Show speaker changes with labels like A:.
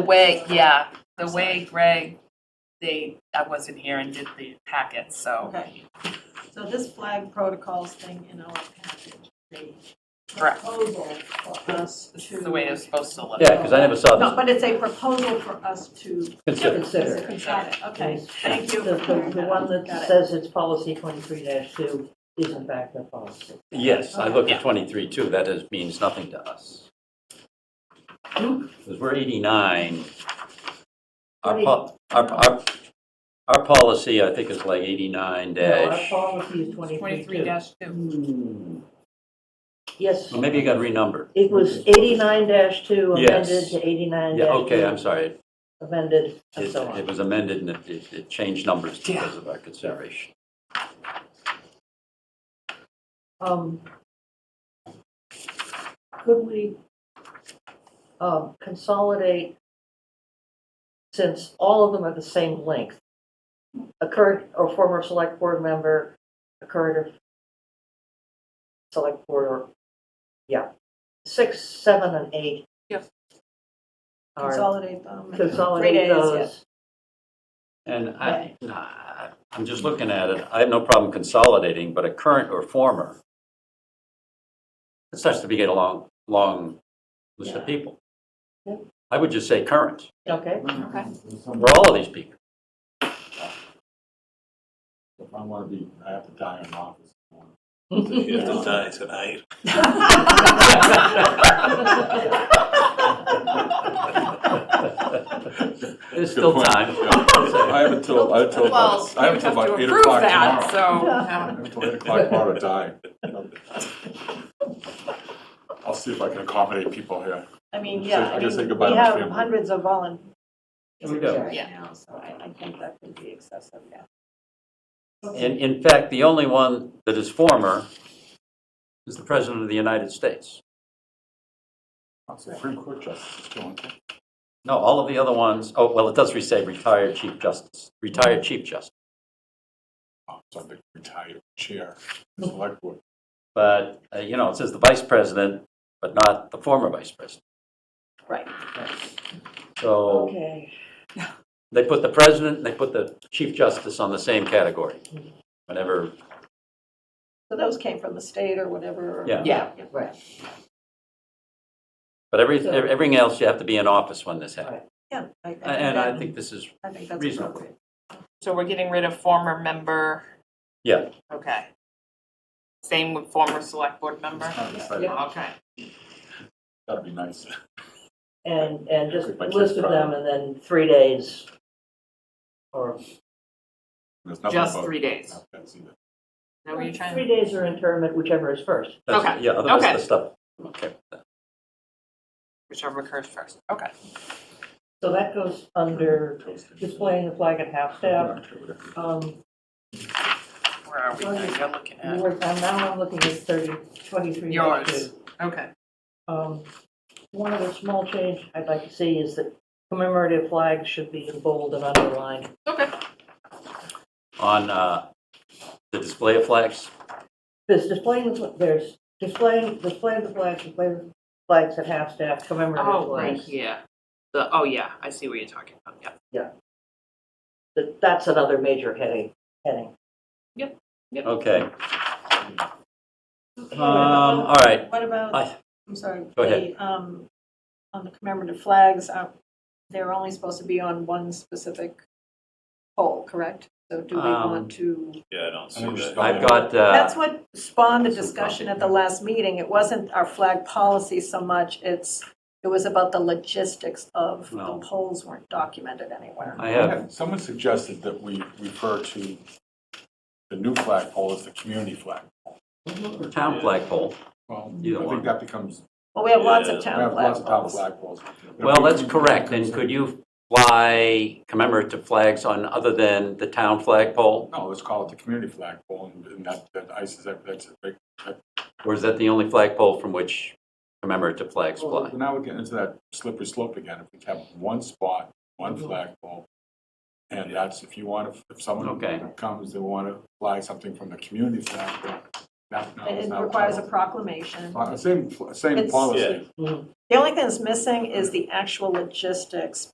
A: The way, yeah, the way Greg, they, I wasn't here and did the packet, so,
B: Okay. So this flag protocols thing in our package, the
A: Correct.
B: proposal for us to.
A: this is the way it's supposed to look.
C: Yeah, because I never saw
B: No,
C: this.
B: but it's a proposal for us to
C: Consider.
D: Consider.
B: Got it, okay, thank you.
D: The,
B: for clearing
D: the, the one
B: up.
D: that
B: Got it.
D: says it's policy twenty-three two is in fact a policy.
C: Yes, I looked
A: Yeah.
C: at 23 too. That is, means nothing to us.
D: Hmm?
C: Because we're 89. Our, po- our, our, our policy, I think, is like 89
D: No, our
C: dash.
D: policy is twenty-three
A: Twenty-three
D: two.
A: dash two.
C: Hmm.
D: Yes,
C: Well, maybe you got renumbered.
D: it was eighty-nine two
C: Yes.
D: amended to eighty-nine
C: Yeah, okay, I'm sorry. It-
D: Amended and so
C: It
D: on.
C: was amended and it- it, it changed numbers
A: Yeah.
C: because of our consideration.
D: Um, Could we, um, consolidate, since all of them are the same length, a current or former select board member, a current or select board, or, yeah, six, seven, and eight.
A: Yes.
D: Are
B: Consolidate them.
D: consolidate
B: Three days,
D: those.
C: And I, nah, I'm just looking at it. I have no problem consolidating, but a current or former. It starts to be get a long, long list of
D: Yeah.
C: people.
D: Yeah.
C: I would just say current,
D: Okay,
A: Okay.
E: Um,
C: for all of these people.
E: If I want to be, I have to die in office.
F: You have to die tonight.
C: There's still
E: Good point.
C: time.
E: I have until, I have until,
A: Well,
E: about- I
A: you
E: have until
A: have to
E: about eight
A: approve
E: o'clock
A: that,
E: tomorrow. I
A: so. um,
E: have until eight o'clock tomorrow to die. I'll see if I can accommodate people here.
B: I mean,
E: Say-
B: yeah, I
E: I just
B: mean,
E: say goodbye
B: we
E: to my
B: have
E: family.
B: hundreds of volunteers
C: Here we go.
B: right
A: Yeah.
B: now, so I, I think that could be excessive, yeah.
C: In, in fact, the only one that is former is the President of the United States.
E: I'll say Supreme Court Justice, still on.
C: No, all of the other ones, oh, well, it does re- say retired Chief Justice, retired Chief Justice.
E: Oh, so I'm the retired chair, select board.
C: But, uh, you know, it says the Vice President, but not the former Vice President.
B: Right.
C: So
D: okay.
C: they put the President, and they put the Chief Justice on the same category whenever,
B: So those came from the state or whatever. or-
C: Yeah.
A: Yeah.
D: Right,
C: but every, everything else, you have to be in office when this happens.
B: Yeah. I- I think
C: And I
B: that-
C: think this is,
B: I think that's
C: reasonable.
B: appropriate.
A: So we're getting rid of former member,
C: yeah,
A: okay. Same with former select board member? Okay.
E: That'd be nice.
D: and, and just
E: Everybody's
D: list of
E: just
D: them,
E: proud.
D: and then three days, or
E: There's nothing
A: Just
E: about-
A: three days. Is
E: That's either-
A: that what you're trying
D: Three
A: to?
D: days or internment, whichever is first.
C: that's,
A: Okay,
C: yeah, otherwise
A: okay.
C: the stuff, okay.
A: Whichever occurs first, okay.
D: So that goes under
E: Toasted.
D: displaying the flag at half-staff.
E: Whatever.
D: Um,
A: Where are we? Now You're looking at,
D: we're- I'm now I'm looking at 30, 23.
A: Yours. okay.
D: Um, One other small change I'd like to see is that commemorative flags should be in bold and underlined.
A: Okay.
C: On uh, the display of flags,
D: There's displaying, the fl- there's displaying, displaying the flags, displaying the flags at half-staff, commemorative
A: Oh, right
D: flags.
A: here. The, oh, yeah, I see what you're talking about, yeah.
D: That- That's another major heading, heading.
C: okay.
B: Okay,
C: Um,
B: what about-
C: all right,
B: What about,
C: I-
B: I'm sorry.
C: Go ahead.
B: the, um, On the commemorative flags, uh, they're only supposed to be on one specific pole, correct? So do we
C: Um,
B: want to?
F: Yeah, I don't see
E: I mean,
F: that.
E: just-
C: I've got, uh,
B: That's what spawned the
C: Some
B: discussion
C: copy,
B: at the
C: yeah.
B: last meeting. It wasn't our flag policy so much, it's, it was about the logistics of the
C: Well.
B: polls weren't documented anywhere.
C: I have,
E: Someone suggested that we refer to the new flagpole as the community flag.
C: town flagpole.
E: Well,
C: Either
E: I
C: one.
E: think that becomes,
B: Well, we have lots
F: Yeah.
B: of
E: we
B: town
E: have lots
B: flag
E: of town
B: polls.
E: flagpoles.
C: Well, that's correct, and could you fly commemorative flags on other than the town flagpole?
E: No, let's call it the community flagpole, and- and that, that ices, that, that's a big.
C: Or is that the only flagpole from which commemorative flags fly?
E: Well, Now we're getting into that slippery slope again, if we have one spot, one
B: Mm-hmm.
E: flagpole, and that's, if you want, to if someone
C: Okay.
E: comes, they want to fly something from the community flagpole, that now
B: It
E: is
B: it
E: now.
B: requires a proclamation.
E: Uh, Same, same
B: It's-
E: policy.
F: Yeah.
B: The only thing that's missing is the actual logistics